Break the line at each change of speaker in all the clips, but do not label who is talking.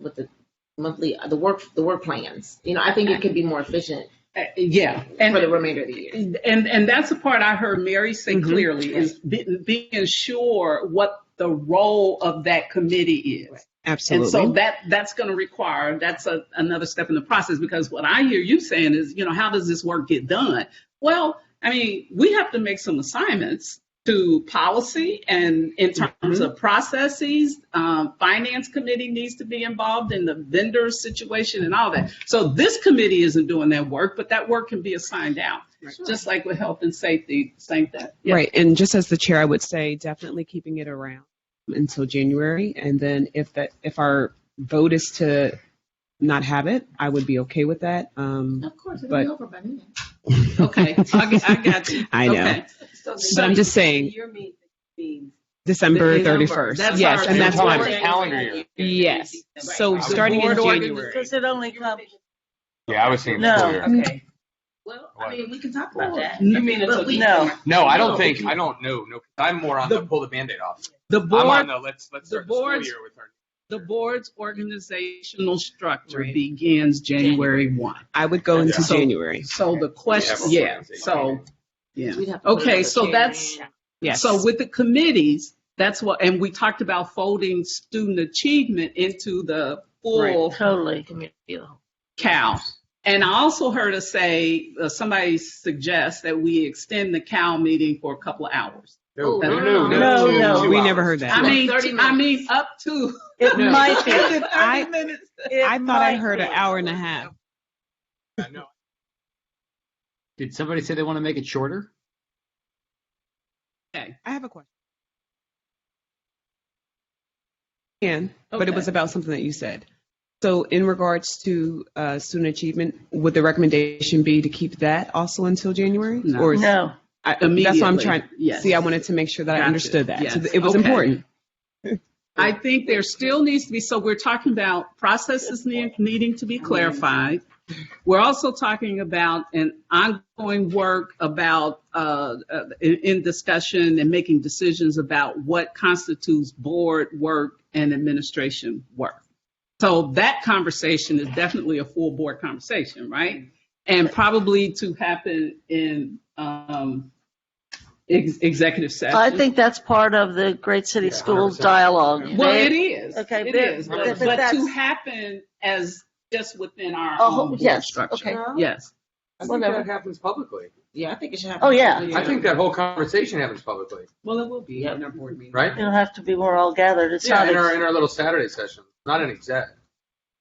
with the monthly, the work, the work plans. You know, I think it could be more efficient
Uh, Yeah,
for the
and,
remainder of the year.
and, and that's the part I heard Mary say clearly is be- being sure what the role of that committee is. And so
Absolutely.
that, that's going to require, that's a, another step in the process because what I hear you saying is, you know, how does this work get done? Well, I mean, we have to make some assignments to policy and in terms
Mm-hmm.
of processes, um, finance committee needs to be involved in the vendor situation and all that. So this committee isn't doing that work, but that work can be assigned out. Just like with health and safety, same thing. Yeah.
Right. And just as the chair, I would say definitely keeping it around until January. And then if that, if our vote is to not have it, I would be okay with that. Um,
Of course,
it'll be But-
over by then.
Okay, I, g- I got you.
I know.
Okay.
So
But I'm just saying,
Your meeting means.
December
December.
31st.
That's
Yes,
our-
and that's
You're
why.
talking
I'm-
about
calendar year.
Yes. So
Right.
starting in
Board organ-
January.
Does it only come?
Yeah, I was thinking
No.
earlier.
Mm-hmm.
Okay.
Well,
What?
I mean, we can talk about that.
You
mean it's
But we-
No.
No, I
No.
don't think, I don't know. No, 'cause I'm more on the
The-
pull the Band-Aid off.
The
I'm
board
on the let's, let's
the
start the school
boards-
year with our.
The board's organizational structure
Right.
begins January 1.
I would go into
Yeah.
So-
January.
So the question,
We have
yeah,
organization.
so, yeah.
We'd have to put
Okay,
another
so
chair
that's,
in.
Yes.
so with the committees, that's what, and we talked about folding student achievement into the full
Totally.
Cal. And I also heard us say, uh, somebody suggest that we extend the Cal meeting for a couple of hours.
No,
no,
no,
no,
two-
no.
two
we
hours.
never heard that.
I mean,
30
I
minutes.
mean, up to.
It
No.
might be.
Up to 30
I-
minutes.
It
I thought I
might
heard an
be.
hour and a half.
Yeah, no.
Did somebody say they want to make it shorter?
I have a question. Can, but it
Okay.
was about something that you said. So in regards to uh, student achievement, would the recommendation be to keep that also until January?
No.
Or is-
No.
I- That's what I'm
Immediately,
trying,
yes.
see, I wanted to make sure that I
Gotcha.
understood that. So
Yes.
it was
Okay.
important.
I think there still needs to be, so we're talking about processes ne- needing to be clarified. We're also talking about an ongoing work about, uh, uh, in, in discussion and making decisions about what constitutes board work and administration work. So that conversation is definitely a full board conversation, right? And probably to happen in, um, ex- executive session.
I think that's part of the Great City
Yeah,
Schools
100%.
dialogue.
Well,
They-
it is.
okay,
it
but-
is.
but-
But,
but
but to
that's-
happen as just within our
A whole-
own board
yes,
structure.
okay.
Yes.
I think
Whatever.
that happens publicly.
Yeah, I think it should happen.
Oh, yeah.
earlier.
I think that whole conversation happens publicly,
Well, it will be
Yep.
in our board meeting.
right?
It'll have to be more all gathered. It's
Yeah,
not.
in our,
ex-
in our little Saturday session, not an exec.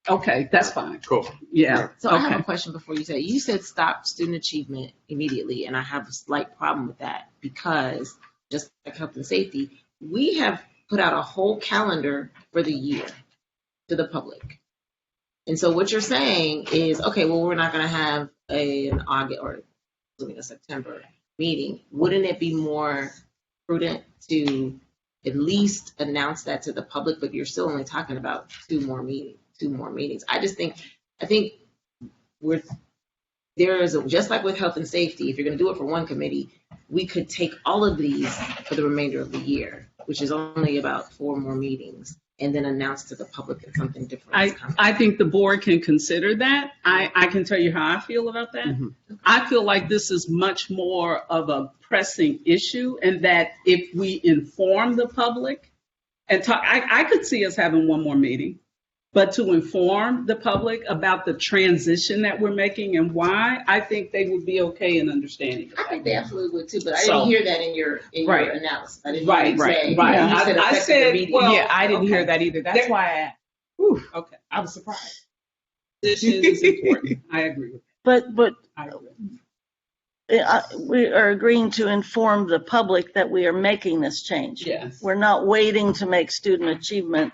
Okay, that's fine.
Cool.
Yeah.
So I have
okay.
a question before you say. You said stop student achievement immediately, and I have a slight problem with that because just like health and safety, we have put out a whole calendar for the year to the public. And so what you're saying is, okay, well, we're not going to have a, an August or excuse me, a September meeting. Wouldn't it be more prudent to at least announce that to the public? But you're still only talking about two more meetings. Two more meetings. I just think, I think we're there is a, just like with health and safety. If you're going to do it for one committee, we could take all of these for the remainder of the year, which is only about four more meetings, and then announce to the public that something different is
I,
coming.
I think the board can consider that. I, I can tell you how I feel about that.
Mhm.
I feel like this is much more of a pressing issue, and that if we inform the public and talk, I, I could see us having one more meeting, but to inform the public about the transition that we're making and why, I think they would be okay in understanding. of
I think they absolutely would too, but I
So-
didn't hear that in your in
Right.
your analysis. I didn't
Right,
hear you
right,
say,
right.
You
I-
said
I
affected
said,
the meeting.
well-
Yeah, I didn't hear that either. That's
There-
why I asked.
that. Okay, I was surprised. Transition is important. I agree with
But, but
that. I agree.
uh, we are agreeing to inform the public that we are making this change.
Yes.
We're not waiting to make student achievement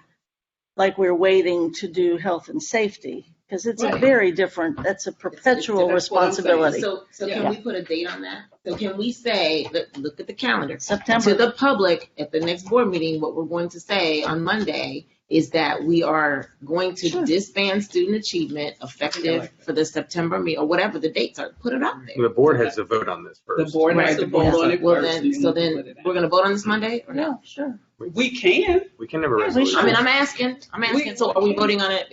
like we're waiting to do health and safety, because it's a
Right.
very different, that's a perpetual
that's what I'm saying.
responsibility.
So, so
Yeah.
can we put a date on that? So can we say, look, look at the calendar. To
September,
the public, at the next board meeting, what we're going to say on Monday is that we are going to disband student achievement effective for the September meet, or whatever the dates are, put it out there.
The board has to vote on this
The
first.
board has
Right,
to
the board
vote on
has
it
to- well,
first.
then-
and
So
put
then,
it out.
we're gonna vote on this Monday or no?
yeah, sure.
We can.
We can never.
Yeah, we
resolution.
should.
I mean, I'm asking, I'm asking, so are we voting on it